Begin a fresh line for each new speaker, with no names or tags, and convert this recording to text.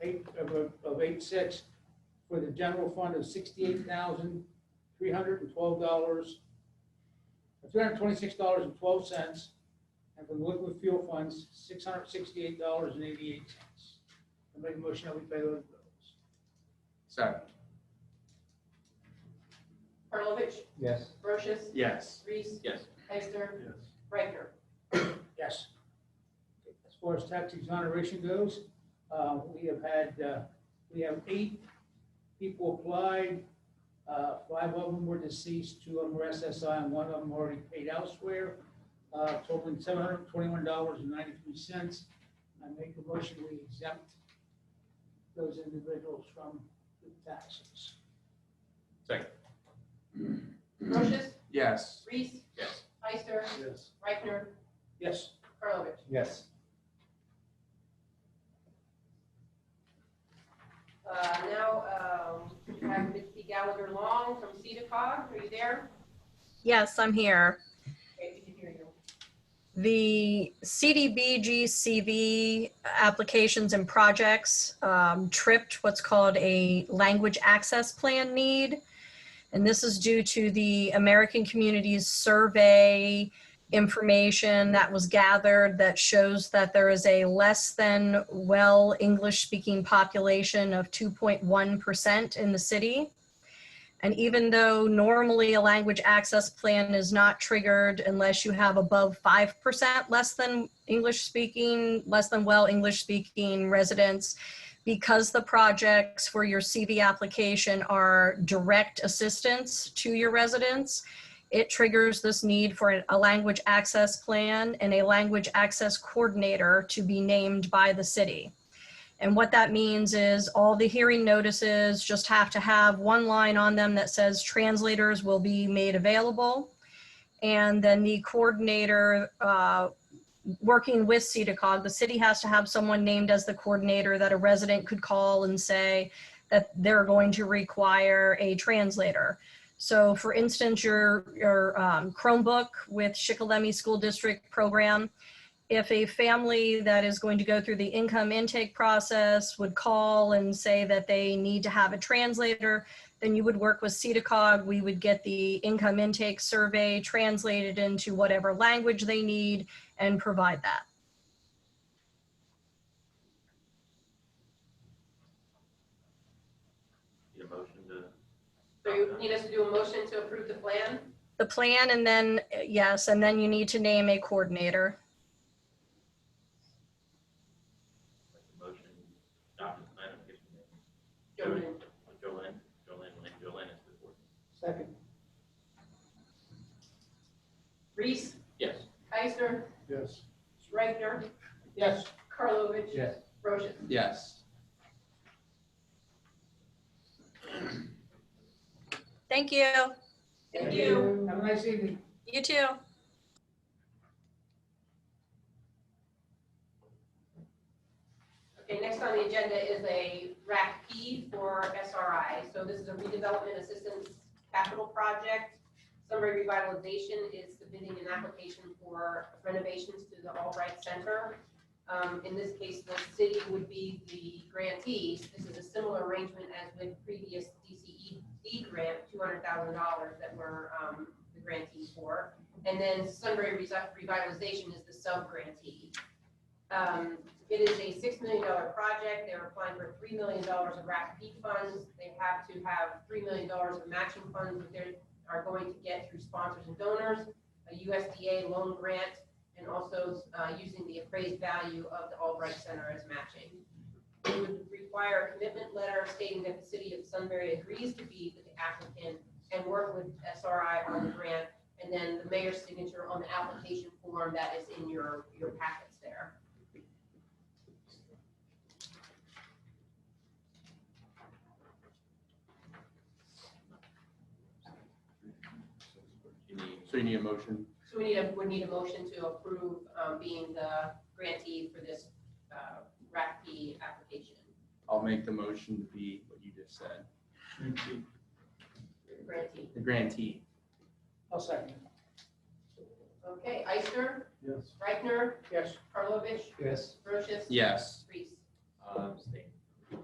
six for the general fund of sixty-eight thousand, three hundred and twelve dollars, three hundred and twenty-six dollars and twelve cents, and for the liquid fuel funds, six hundred and sixty-eight dollars and eighty-eight cents. I make a motion that we pay those bills.
Second.
Karlovic,
Yes.
Brochus,
Yes.
Reese,
Yes.
Heister,
yes,
Reichner.
Yes. As far as tax exoneration goes, uh, we have had, uh, we have eight people applied. Uh, Five of them were deceased, two of them were SSI, and one of them already paid elsewhere, uh, totaling seven hundred twenty-one dollars and ninety-three cents. I make a motion we exempt those individuals from the taxes.
Brochus,
Yes.
Reese,
Yes.
Heister,
yes,
Reichner,
Yes.
Karlovic.
Yes.
Uh, Now, um, we have Mitzi Gallagher Long from CEDACOG. Are you there?
Yes, I'm here.
Okay, we can hear you.
The CDBG-CV applications and projects um, tripped what's called a language access plan need. And this is due to the American Communities Survey information that was gathered that shows that there is a less than well English-speaking population of 2.1% in the city. And even though normally a language access plan is not triggered unless you have above 5% less than English speaking, less than well English speaking residents, because the projects for your CV application are direct assistance to your residents, it triggers this need for an- a language access plan and a language access coordinator to be named by the city. And what that means is all the hearing notices just have to have one line on them that says translators will be made available. And then the coordinator, uh, working with CEDACOG, the city has to have someone named as the coordinator that a resident could call and say that they're going to require a translator. So for instance, your, your um, Chromebook with Shikellamy School District program, if a family that is going to go through the income intake process would call and say that they need to have a translator, then you would work with CEDACOG. We would get the income intake survey translated into whatever language they need and provide that.
Need a motion to,
So you need us to do a motion to approve the plan?
The plan and then, yes, and then you need to name a coordinator.
like, a motion, Dr. I don't get your name.
Jolene.
Jolene, Jolene, Lynn, Jolene is the board.
Second.
Reese,
Yes.
Heister,
yes,
Reichner,
Yes.
Karlovic.
Yes.
Brochus.
Yes.
Thank you.
Thank you.
Have a nice evening.
You too.
Okay, next on the agenda is a RAC P for SRI. So this is a redevelopment assistance capital project. Summary Revitalization is submitting an application for renovations to the All Right Center. Um, In this case, the city would be the grantee. This is a similar arrangement as with previous DCED grant, $200,000 that we're um, the grantee for. And then Sunbury Revitalization is the sub-grantee. Um, it is a six million dollar project. They're applying for three million dollars of RACP funds. They have to have three million dollars of matching funds that they are going to get through sponsors and donors, a USDA loan grant, and also uh, using the appraised value of the Albright Center as matching. It would require a commitment letter stating that the city of Sunbury agrees to be the applicant and work with SRI on the grant, and then the mayor's signature on the application form that is in your, your packets there.
You need,
So you need a motion?
So we need a, we need a motion to approve um, being the grantee for this uh, RACP application.
I'll make the motion to be what you just said.
Grantee.
The grantee.
I'll second.
Okay, Ister,
yes.
Reichner,
Yes.
Karlovic,
Yes.
Brochus.
Yes.
Reese.
um, state.